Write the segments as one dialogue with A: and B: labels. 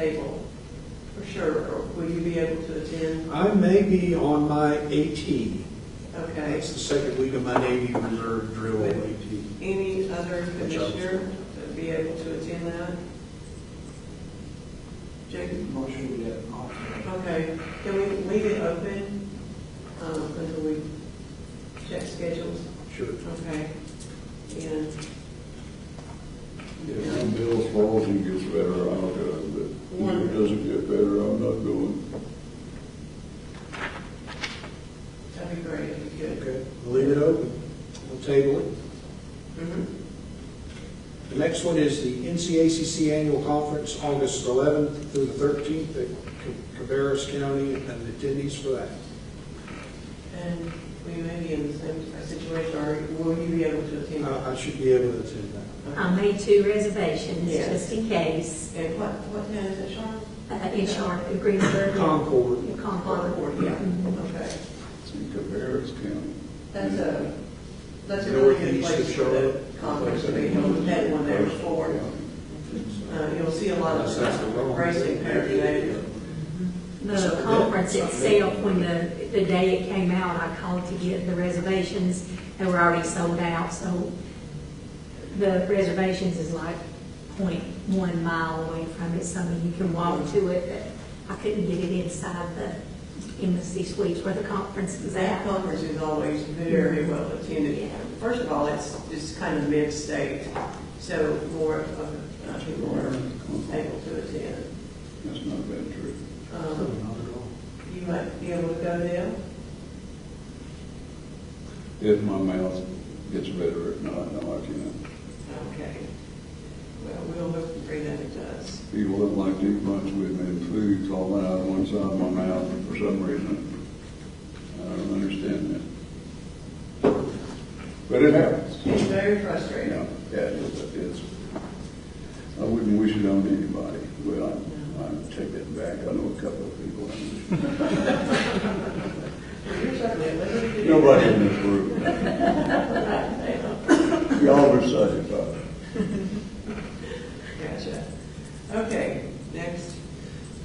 A: table, for sure, or will you be able to attend?
B: I may be on my AT.
A: Okay.
B: That's the second week of my Navy Reserve drill at AT.
A: Any other
B: Which I was-
A: commissioner that'd be able to attend that? Jacob?
C: Motion to that option.
A: Okay, can we leave it open um, until we check schedules?
B: Sure.
A: Okay. And,
D: If some Bill Swansea gets better, I'll go, but if it doesn't get better, I'm not going.
A: that'd be great, if you could.
B: Okay, we'll leave it open. We'll table it.
A: Mhm.
B: The next one is the NCACC Annual Conference, August 11th through the 13th at Ca- Cabarrus County, and attendees for that.
A: And we may be in the same situation, or will you be able to attend?
B: I I should be able to attend that.
A: Okay.
E: I made two reservations,
A: Yes.
E: just in case.
A: And what, what town is it, Charlotte?
E: Uh, In Charlotte, Greensburg.
B: Concord.
E: Concord.
A: Yeah,
E: Mhm.
A: okay.
D: See, Cabarrus County.
A: That's a, that's a really good
B: Northeast of
A: place for the
B: Charlotte.
A: conference to be held. We've had one there before. Uh, You'll see a lot
B: That's- that's the wrong
A: of racing paraphernalia.
E: The conference itself, when the, the day it came out, I called to get the reservations, they were already sold out, so the reservations is like 0.1 mile away from it, so I mean, you can walk to it, but I couldn't get it inside the embassy suites where the conference is
A: That
E: at.
A: conference is always very
E: Mm-hmm.
A: well attended. First of all, it's, it's kind of mid-state, so more of, uh, people are able to attend.
D: That's not bad trip.
A: Um, You might be able to go there.
D: If my mouth gets better, if not, no, I can't.
A: Okay. Well, we'll hope and pray that it does.
D: People that like to eat lunch with me and food's all out of one side of my mouth for some reason. I don't understand that. But it happens.
A: It's very
D: Yeah,
A: frustrating.
D: yeah, it is, it is. I wouldn't wish it on anybody. Well, I, I take that back. I know a couple of people. I wish-
A: You're certainly at liberty to do
D: Nobody
A: that.
D: in this room. Y'all are safe, though.
A: Gotcha. Okay, next.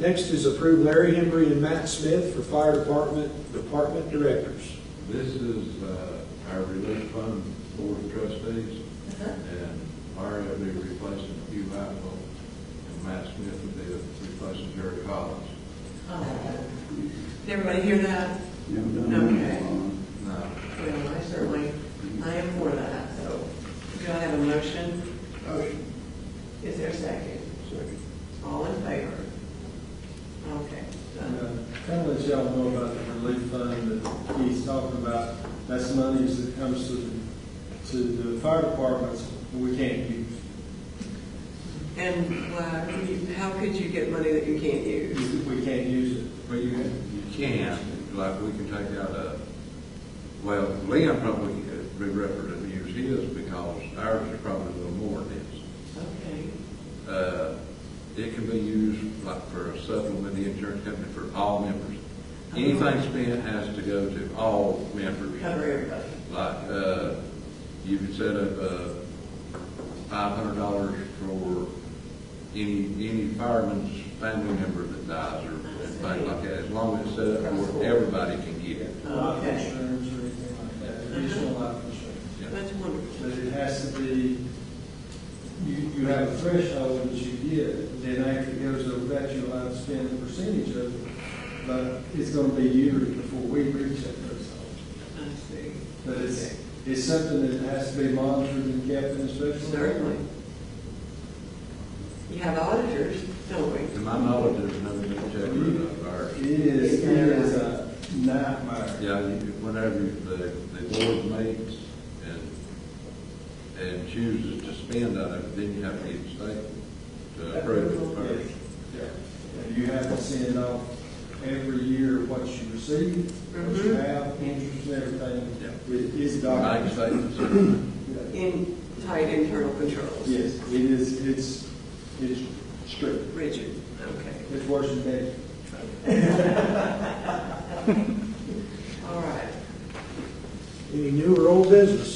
B: Next is approve Larry Henry and Matt Smith for Fire Department, Department Directors.
F: This is uh, our relief fund board of trustees, and Larry will be replacing Hugh Apple, and Matt Smith will be replacing Jerry Collins.
A: Oh. Did everybody hear that?
D: You haven't done
A: Okay.
D: that long.
F: Now,
A: Well, I certainly, I am for that, so. Do I have a motion?
D: Motion.
A: Is there a second?
D: Second.
A: All in favor? Okay.
C: And,
A: done.
C: uh, Kind of let y'all know about the relief fund that he's talking about. That's money that comes to, the- to the fire departments we can't use.
A: And uh, you- how could you get money that you can't use?
C: We can't use it.
F: Well, you, you can, like, we can take out a, well, Liam probably would be referred to use his because ours is probably a little more than his.
A: Okay.
F: Uh, It can be used like for a supplement, the insurance company, for all members. Anything spent has to go to all members.
A: Cover everybody.
F: Like, uh, you could set up, uh, five hundred dollars for any, any fireman's family member that dies or anything like that, as long as it's set up where everybody can get it.
C: Life
A: Okay.
C: insurance or anything like that, additional life insurance.
A: That's wonderful.
C: But it has to be, you, you have a threshold that you get, then after it goes over that, you'll have to spend a percentage of it. But it's gonna be years before we reach that threshold.
A: I see.
C: But it's,
A: Okay.
C: it's something that has to be monitored and kept in a special.
A: Certainly. You have auditors, don't we?
F: To my knowledge, there's no new checker of ours.
C: It is, it is a nightmare.
F: Yeah, you- whenever the, the board meets and, and chooses to spend on it, then you have to get state to approve it first.
C: And You have to send off every year what you receive, what you
A: Mhm.
C: have, interest and
F: Yeah.
C: everything. It is
F: Bank
C: documented.
F: statements,
C: Yeah.
A: In tight internal controls.
C: Yes, it is, it's, it's strict.
A: Richard, okay.
C: It's worse than that.
A: All right.
B: Any new or old business?